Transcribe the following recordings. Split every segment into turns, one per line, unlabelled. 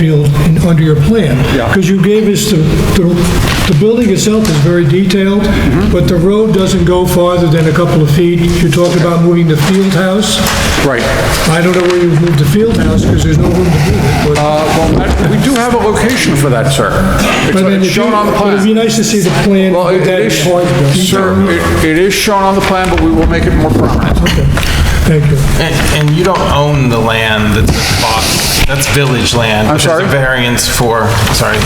field in- under your plan.
Yeah.
Because you gave us the, the, the building itself is very detailed,
Mm-hmm.
but the road doesn't go farther than a couple of feet. You talked about moving the field house.
Right. Uh,
I don't know where you've moved the field house because there's no room to move it, but.
Uh, well, that- we do have a location for that, sir. It's-
But then
It's
if you-
shown on the
but It'd be
plan.
nice to see the plan.
Well, it
with that
it is,
part
sir,
detailed.
it- it is shown on the plan, but we will make it more prominent.
Thank you.
And and you don't own the land that's at Boston. That's village land.
I'm
which is
sorry?
a variance for, sorry.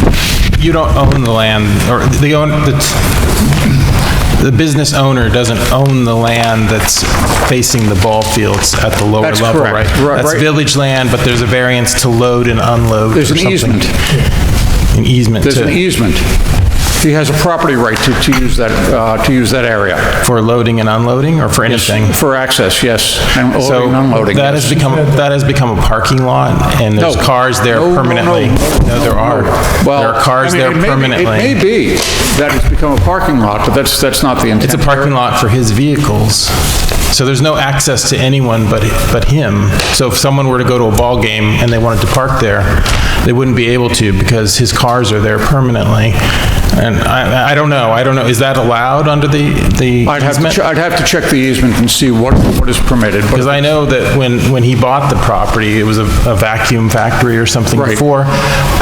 You don't own the land, or the own, the- the business owner doesn't own the land that's facing the ball fields at the lower
That's
level,
correct.
right?
Right,
That's
right.
village land, but there's a variance to load and unload or
There's an
something.
easement.
An easement
There's an e-
to,
easement. He has a property right to, to use that, uh, to use that area
for loading and unloading, or for anything?
for access, yes, and
So
loading and unloading.
that
yes.
has become, that has become a parking lot, and there's
No.
cars there
No, no, no.
permanently. No, there are.
Well,
There are cars
I mean,
there
it may be- It may
permanently.
be that it's become a parking lot, but that's, that's not the intent.
It's a parking lot for his vehicles, so there's no access to anyone but, but him. So if someone were to go to a ball game and they wanted to park there, they wouldn't be able to because his cars are there permanently. And I, I don't know, I don't know, is that allowed under the, the
I'd have to,
easement?
che- I'd have to check the easement and see what, what is permitted, but
Because I know that when, when he bought the property, it was a a vacuum factory or something
Right.
before.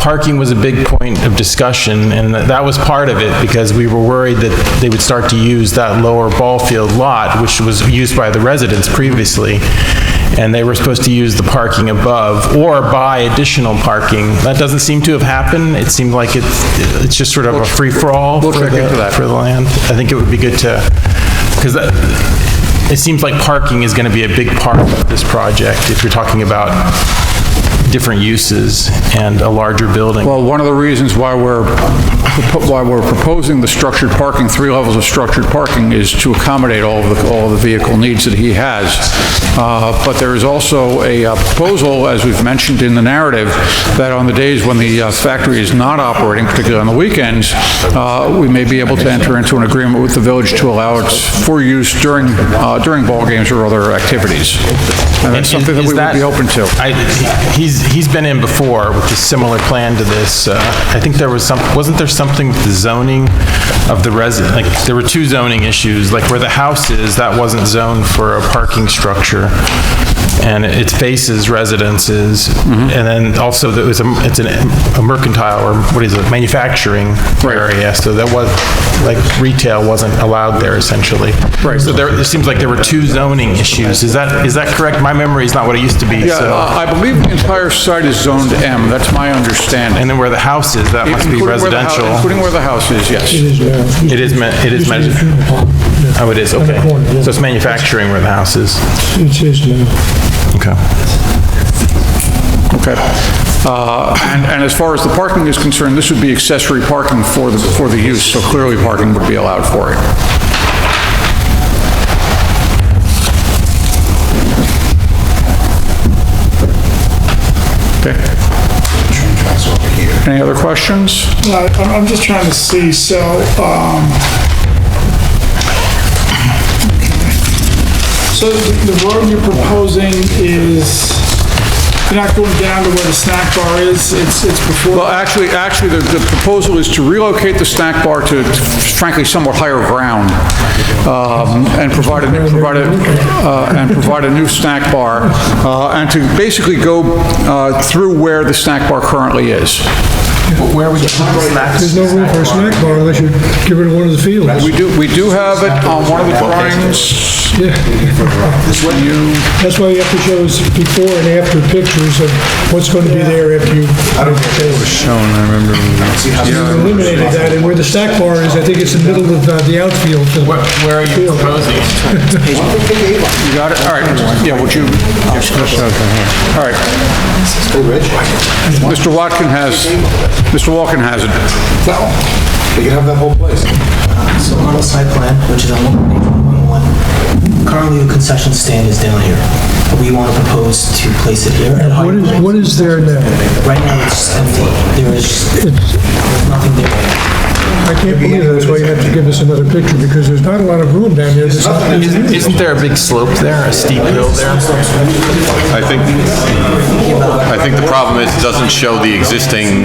Parking was a big point of discussion, and that that was part of it, because we were worried that they would start to use that lower ball field lot, which was used by the residents previously, and they were supposed to use the parking above or buy additional parking. That doesn't seem to have happened. It seemed like it's, it's just sort of a free-for-all
We'll
for
check into
the,
that.
for the land. I think it would be good to, because it seems like parking is going to be a big part of this project if you're talking about different uses and a larger building.
Well, one of the reasons why we're, why we're proposing the structured parking, three levels of structured parking, is to accommodate all of the, all of the vehicle needs that he has. Uh, But there is also a uh, proposal, as we've mentioned in the narrative, that on the days when the uh, factory is not operating, particularly on the weekends, uh, we may be able to enter into an agreement with the village to allow it for use during, uh, during ball games or other activities. And that's something that
Is
we would be open to.
I- He's, he's been in before with a similar plan to this. Uh, I think there was some, wasn't there something with the zoning of the resident, like, there were two zoning issues, like where the house is, that wasn't zoned for a parking structure, and it faces residences,
Mm-hmm.
and then also there was, a- it's an- a mercantile, or what is it, manufacturing area, so that was, like, retail wasn't allowed there essentially. Right. So there, it seems like there were two zoning issues, is that, is that correct? My memory is not what it used to be,
Yeah,
so.
uh, I believe the entire site is zoned M, that's my understanding.
And then where the house is, that must be
Including where the hou-
residential.
Including where the house is,
It
yes.
is, uh,
It is, me- it is,
Used to be a
manuf-
funeral home. Yeah.
oh, it is,
On the
okay.
corner, yeah.
So it's manufacturing where the house is.
It is now.
Okay.
Okay. Uh, And and as far as the parking is concerned, this would be accessory parking for the, for the use, so clearly parking would be allowed for it. Okay. Any other questions?
No, I'm, I'm just trying to see, so, um, so the the road you're proposing is, you're not going down to where the snack bar is, it's, it's
Well,
before,
actually, actually, the the proposal is to relocate the snack bar to frankly somewhat higher ground um, and provide a, new- provide a, uh, and provide a new snack bar uh, and to basically go uh, through where the snack bar currently is.
Where would you
There's no room for a snack bar unless you give it to one of the fields.
We do, we do have it on one of the drawings. You-
That's why you have to show us before and after pictures of what's going to be there after you... I don't think it was shown, I remember. You eliminated that, and where the snack bar is, I think it's the middle of uh, the outfield.
Where are you proposing?
You got it? All right. Yeah, would you? All right. Mr. Watkin has, Mr. Walken has it.
No, they can have that whole place.
So on the site plan, which is on local page 111, currently the concession stand is down here. We want to propose to place it here. at a
What
higher
is,
point.
what is there now?
Right now, it's empty. There is there's nothing there.
I can't believe that's why you have to give us another picture, because there's not a lot of room down there. There's nothing.
Isn't isn't there a big slope there, a steep hill there?
I think, I think the problem is it doesn't show the existing